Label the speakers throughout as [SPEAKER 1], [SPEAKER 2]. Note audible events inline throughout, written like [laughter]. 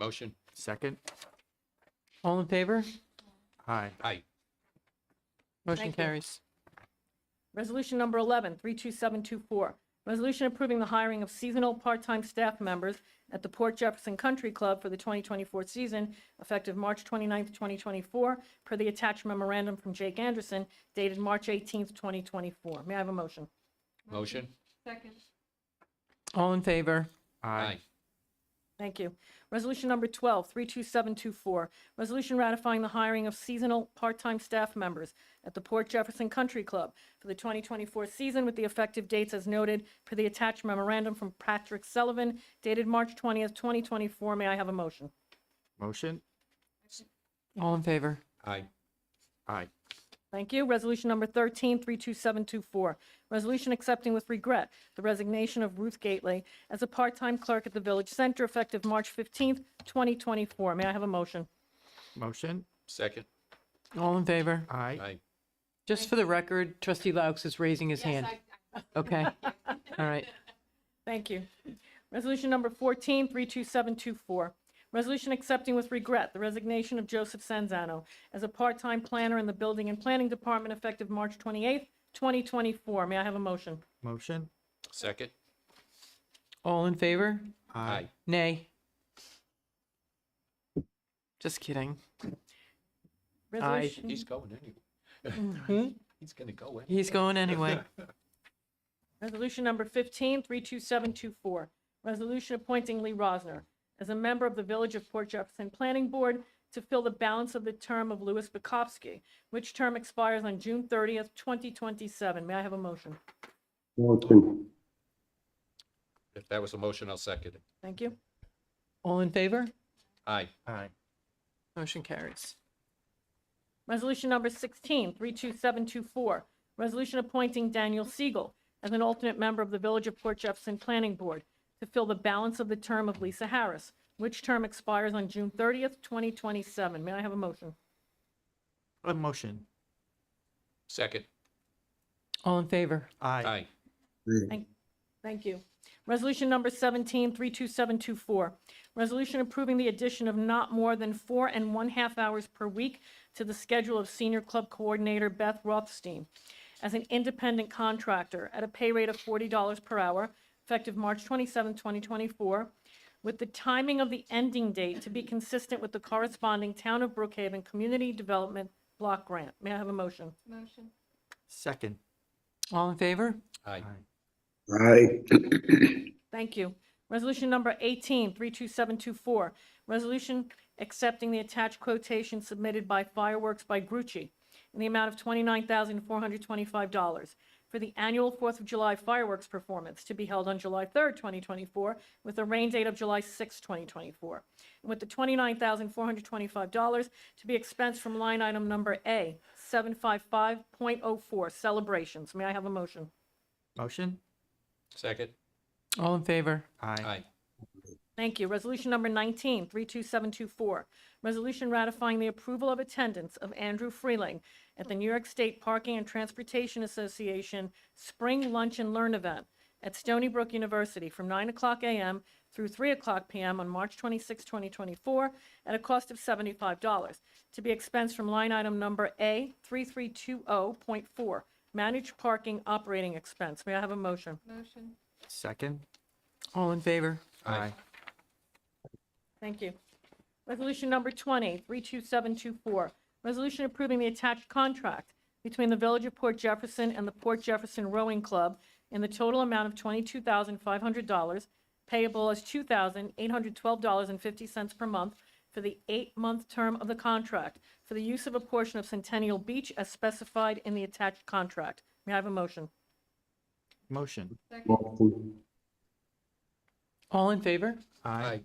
[SPEAKER 1] Motion?
[SPEAKER 2] Second?
[SPEAKER 3] All in favor?
[SPEAKER 2] Aye.
[SPEAKER 1] Aye.
[SPEAKER 3] Motion
[SPEAKER 4] Thank you.
[SPEAKER 3] carries.
[SPEAKER 4] Resolution number 11, 32724, resolution approving the hiring of seasonal part-time staff members at the Port Jefferson Country Club for the 2024 season, effective March 29th, 2024, per the attached memorandum from Jake Anderson dated March 18th, 2024. May I have a motion?
[SPEAKER 1] Motion?
[SPEAKER 3] All in favor?
[SPEAKER 2] Aye.
[SPEAKER 4] Thank you. Resolution number 12, 32724, resolution ratifying the hiring of seasonal part-time staff members at the Port Jefferson Country Club for the 2024 season with the effective dates as noted per the attached memorandum from Patrick Sullivan dated March 20th, 2024. May I have a motion?
[SPEAKER 2] Motion?
[SPEAKER 3] All in favor?
[SPEAKER 1] Aye.
[SPEAKER 2] Aye.
[SPEAKER 4] Thank you. Resolution number 13, 32724, resolution accepting with regret the resignation of Ruth Gately as a part-time clerk at the Village Center effective March 15th, 2024. May I have a motion?
[SPEAKER 2] Motion?
[SPEAKER 1] Second?
[SPEAKER 3] All in favor?
[SPEAKER 2] Aye.
[SPEAKER 1] Aye.
[SPEAKER 3] Just for the record, trustee Laux is raising his hand. Okay. All right.
[SPEAKER 4] Thank you. Resolution number 14, 32724. Resolution accepting with regret the resignation of Joseph Sanzano as a part-time planner in the Building and Planning Department effective March 28th, 2024. May I have a motion?
[SPEAKER 2] Motion?
[SPEAKER 1] Second?
[SPEAKER 3] All in favor?
[SPEAKER 1] Aye.
[SPEAKER 3] Nay. Just kidding.
[SPEAKER 4] Resolution-
[SPEAKER 1] He's going anyway. [laughs] He's gonna go anyway.
[SPEAKER 3] He's going anyway.
[SPEAKER 4] Resolution number 15, 32724, resolution appointing Lee Rosner as a member of the Village of Port Jefferson Planning Board to fill the balance of the term of Louis Bukowski, which term expires on June 30th, 2027. May I have a motion?
[SPEAKER 5] Motion.
[SPEAKER 1] If that was a motion, I'll second it.
[SPEAKER 4] Thank you.
[SPEAKER 3] All in favor?
[SPEAKER 1] Aye.
[SPEAKER 2] Aye.
[SPEAKER 3] Motion carries.
[SPEAKER 4] Resolution number 16, 32724, resolution appointing Daniel Siegel as an alternate member of the Village of Port Jefferson Planning Board to fill the balance of the term of Lisa Harris, which term expires on June 30th, 2027. May I have a motion?
[SPEAKER 2] A Uh, motion?
[SPEAKER 1] Second?
[SPEAKER 3] All in favor?
[SPEAKER 2] Aye.
[SPEAKER 1] Aye.
[SPEAKER 4] Thank you. Resolution number 17, 32724, resolution approving the addition of not more than four and one-half hours per week to the schedule of Senior Club Coordinator Beth Rothstein as an independent contractor at a pay rate of $40 per hour, effective March 27, 2024, with the timing of the ending date to be consistent with the corresponding Town of Brookhaven Community Development Block Grant. May I have a motion?
[SPEAKER 2] Second?
[SPEAKER 3] All in favor?
[SPEAKER 1] Aye.
[SPEAKER 5] Aye.
[SPEAKER 4] Thank you. Resolution number 18, 32724, resolution accepting the attached quotation submitted by Fireworks by Grucci in the amount of $29,425 for the annual Fourth of July fireworks performance to be held on July 3rd, 2024, with a rain date of July 6th, 2024, and with the $29,425 to be expensed from line item number A, 755.04, celebrations. May I have a motion?
[SPEAKER 2] Motion?
[SPEAKER 1] Second?
[SPEAKER 3] All in favor?
[SPEAKER 2] Aye.
[SPEAKER 1] Aye.
[SPEAKER 4] Thank you. Resolution number 19, 32724, resolution ratifying the approval of attendance of Andrew Freeling at the New York State Parking and Transportation Association Spring Lunch and Learn Event at Stony Brook University from 9 o'clock a.m. through 3 o'clock p.m. on March 26, 2024, at a cost of $75, to be expensed from line item number A3320.4, managed parking operating expense. May I have a motion?
[SPEAKER 2] Second?
[SPEAKER 3] All in favor?
[SPEAKER 1] Aye.
[SPEAKER 4] Thank you. Resolution number 20, 32724, resolution approving the attached contract between the Village of Port Jefferson and the Port Jefferson Rowing Club in the total amount of $22,500 payable as $2,812.50 per month for the eight-month term of the contract for the use of a portion of Centennial Beach as specified in the attached contract. May I have a motion?
[SPEAKER 2] Motion?
[SPEAKER 5] Motion.
[SPEAKER 3] All in favor?
[SPEAKER 1] Aye.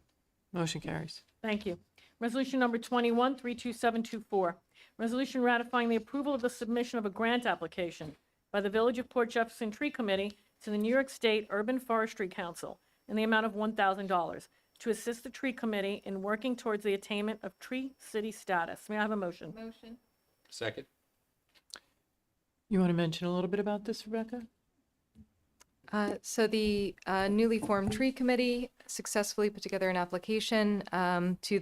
[SPEAKER 3] Motion carries.
[SPEAKER 4] Thank you. Resolution number 21, 32724, resolution ratifying the approval of the submission of a grant application by the Village of Port Jefferson Tree Committee to the New York State Urban Forestry Council in the amount of $1,000 to assist the tree committee in working towards the attainment of tree city status. May I have a motion?
[SPEAKER 1] Second?
[SPEAKER 3] You want to mention a little bit about this, Rebecca?
[SPEAKER 6] Uh, So the uh, newly formed tree committee successfully put together an application um, to